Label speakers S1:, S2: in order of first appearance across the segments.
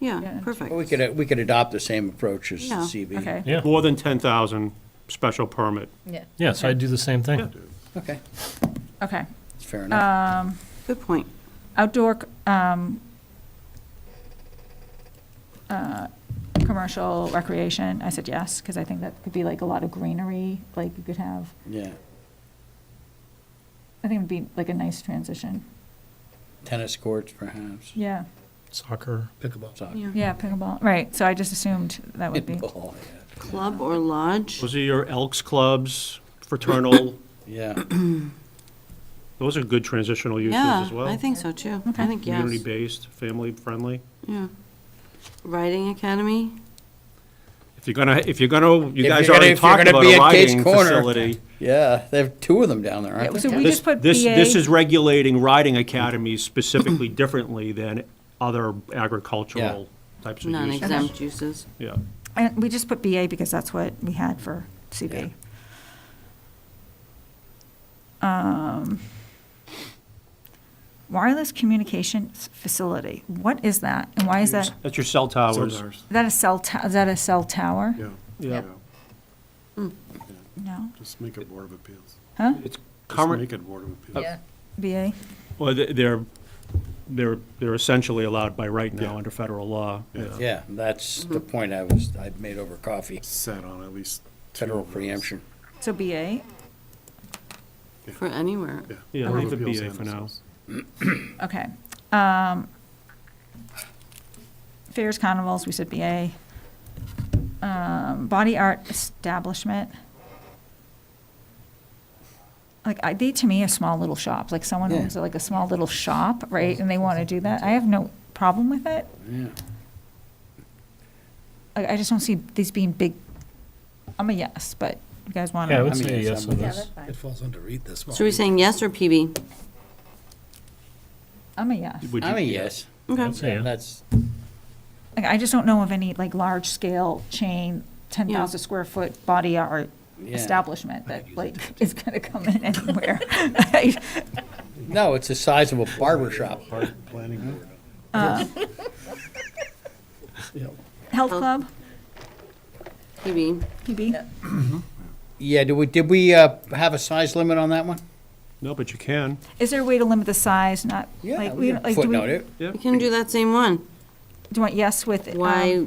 S1: yeah,
S2: Yeah.
S1: perfect.
S3: We could, we could adopt the same approach as the
S1: Yeah.
S3: CB.
S2: Okay.
S4: Yeah.
S5: More than 10,000 special permit.
S6: Yeah.
S4: Yeah, so I'd do the same thing.
S3: Okay,
S2: Okay.
S3: that's
S2: Uh,
S3: fair enough.
S1: Good point.
S2: Outdoor, um, uh, commercial recreation, I said yes, because I think that could be like a lot of greenery, like you could have,
S3: Yeah.
S2: I think it'd be like a nice transition.
S3: Tennis courts perhaps,
S2: Yeah,
S4: Soccer.
S7: Pickleball.
S3: soccer.
S2: yeah, pickleball, right, so I just assumed that would be,
S3: Ball, yeah.
S1: Club or lodge?
S5: Those are your Elks Clubs, fraternal,
S3: Yeah,
S5: those are good transitional uses
S1: Yeah,
S5: as well.
S1: I think so too. I
S2: Okay.
S1: think yes.
S5: Community-based, family-friendly.
S1: Yeah. Riding academy?
S5: If you're gonna, if you're gonna, you
S3: If
S5: guys
S3: you're gonna-
S5: already
S3: if you're
S5: talked
S3: gonna
S5: about
S3: be
S5: a
S3: at Kate's
S5: riding
S3: Corner.
S5: facility.
S3: yeah, they have two of them down there, aren't
S2: so
S3: they?
S2: we
S5: This,
S2: just put BA.
S5: this, this is regulating riding academies specifically differently than other agricultural types of uses.
S1: Non-exempt uses.
S5: Yeah.
S2: And we just put BA because that's what we had for CB. Um, Wireless communications facility, what is that, and why is that,
S5: That's your cell towers.
S2: is that a cell, to- is that a cell tower?
S7: Yeah,
S5: Yeah.
S2: No,
S7: just make it Board of Appeals.
S2: huh,
S5: It's
S7: Just
S5: current,
S7: make it Board of Appeals.
S6: Yeah.
S2: BA,
S5: Well, th- they're, they're, they're essentially allowed by right now
S7: Yeah.
S5: under federal law.
S3: Yeah, that's
S2: Mm-hmm.
S3: the point I was, I made over coffee,
S7: Sat on at least two
S3: federal
S7: of those.
S3: preemption.
S2: so BA,
S1: For anywhere.
S7: Yeah.
S5: Yeah,
S7: Board
S5: leave
S7: of
S5: it
S7: Appeals
S5: BA
S7: and
S5: for now.
S7: assessors.
S2: okay. Um, Fairs, carnivals, we said BA. Um, Body art establishment. Like, I, they to me are small little shops, like someone
S3: Yeah.
S2: owns like a small little shop, right, and they want to do that, I have no problem with it.
S3: Yeah.
S2: I, I just don't see these being big, I'm a yes, but you guys want
S4: Yeah, I would
S2: to,
S3: mean,
S4: say
S3: yes,
S4: yes on
S3: I'm-
S6: Yeah,
S4: this.
S6: that's fine.
S7: It falls under read this one.
S1: So we're saying yes or PB?
S2: I'm a yes.
S5: Would you-
S3: I mean, yes,
S1: Okay.
S4: I'd say yeah.
S3: that's,
S2: Like, I just don't know of any like large scale chain, ten thousand square foot body art
S3: Yeah.
S2: establishment that like is gonna come in anywhere. I-
S3: no, it's the size of a barber shop.
S7: Planning Board.
S2: Health club,
S1: PB.
S2: PB,
S3: Yeah, did we, did we uh, have a size limit on that one?
S5: No, but you can.
S2: is there a way to limit the size, not
S3: Yeah,
S2: like,
S3: we
S2: we, don't-
S3: could
S2: like, do we,
S3: footnote
S2: do
S3: it.
S1: We can do that same one.
S2: you want yes with, um,
S1: Y,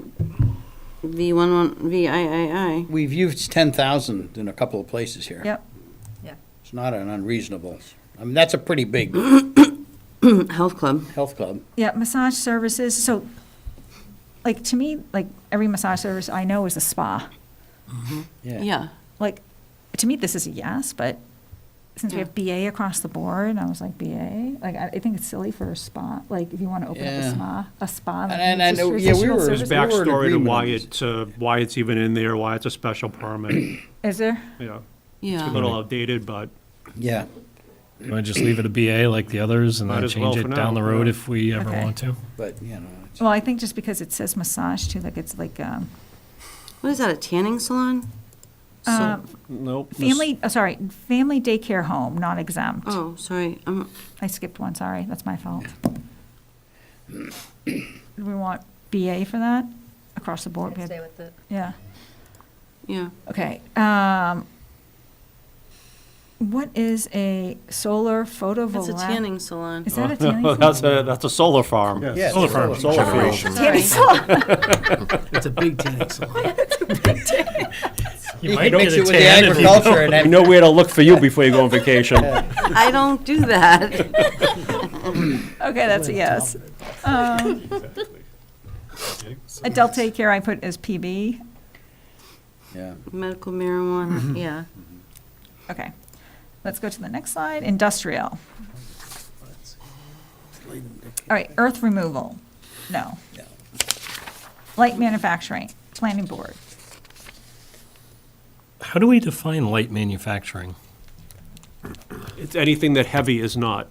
S1: V one one, V I I I.
S3: We've used 10,000 in a couple of places here.
S2: Yep,
S3: It's not an unreasonable, I mean, that's a pretty big
S1: Health club.
S3: health club.
S2: yeah, massage services, so, like, to me, like, every massage service I know is a spa.
S1: Yeah.
S2: Like, to me, this is a yes, but since we have BA across the board, I was like, BA? Like, I, I think it's silly for a spa, like, if you wanna open up
S3: Yeah.
S2: a spa, a spa. like,
S3: And- and-
S2: just
S3: and, yeah, we
S2: traditional
S3: were as
S2: services.
S5: There's
S3: back- We're in
S5: backstory to
S3: agreement on
S5: why
S3: this.
S5: it's, uh, why it's even in there, why it's a special permit.
S2: Is there?
S5: You know, a
S1: Yeah.
S5: little
S2: Um,
S5: outdated, but
S3: Yeah.
S4: You want to just leave it a BA like the others and
S5: Might
S4: then
S5: as well
S4: change
S5: for
S4: it
S5: now,
S4: down the road
S5: yeah.
S4: if we ever
S2: Okay.
S4: want to?
S3: But, you know, it's-
S2: Well, I think just because it says massage too, like it's like, um,
S1: What is that, a tanning salon? So-
S2: uh,
S5: nope. this-
S2: family, oh, sorry, family daycare home, not exempt.
S1: Oh, sorry. I'm,
S2: I skipped one, sorry, that's my fault. Do we want BA for that? Across the board, we
S6: I'd
S2: had-
S6: Stay with it.
S2: yeah,
S1: yeah.
S2: okay. Um, what is a solar
S1: It's a
S2: photovoltaic?
S1: tanning salon.
S2: Is that a
S5: Well,
S2: tanning?
S5: Oh, That's a, that's a solar farm.
S7: Yes.
S3: Yeah,
S4: Solar
S3: solar
S4: farms.
S3: farm.
S4: Solar
S2: salon?
S4: farms.
S2: Tanning salon,
S7: It's a big tanning salon.
S4: You
S3: could
S4: might
S3: mix
S4: get
S3: it
S4: a
S3: with the
S4: 10 if you don't-
S3: agriculture and
S5: You
S3: then,
S5: know where to look for you before you go on vacation.
S1: I don't do that.
S2: okay, that's a yes. Um, Adult daycare I put as PB,
S3: yeah.
S1: Medical marijuana, yeah.
S2: okay. Let's go to the next slide, industrial. All right, earth removal, no.
S3: No.
S2: Light manufacturing, planning board.
S4: How do we define light manufacturing?
S5: It's anything that heavy is not.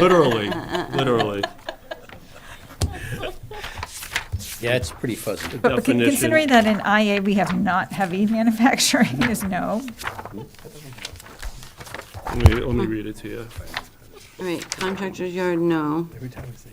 S5: Literally, literally.
S3: Yeah, it's pretty fuzzy.
S2: But con-
S5: Definition.
S2: considering that in IA, we have not heavy manufacturing is no.
S5: Let me, let me read it to you.
S1: All right, contractor's yard, no.
S7: Every time we say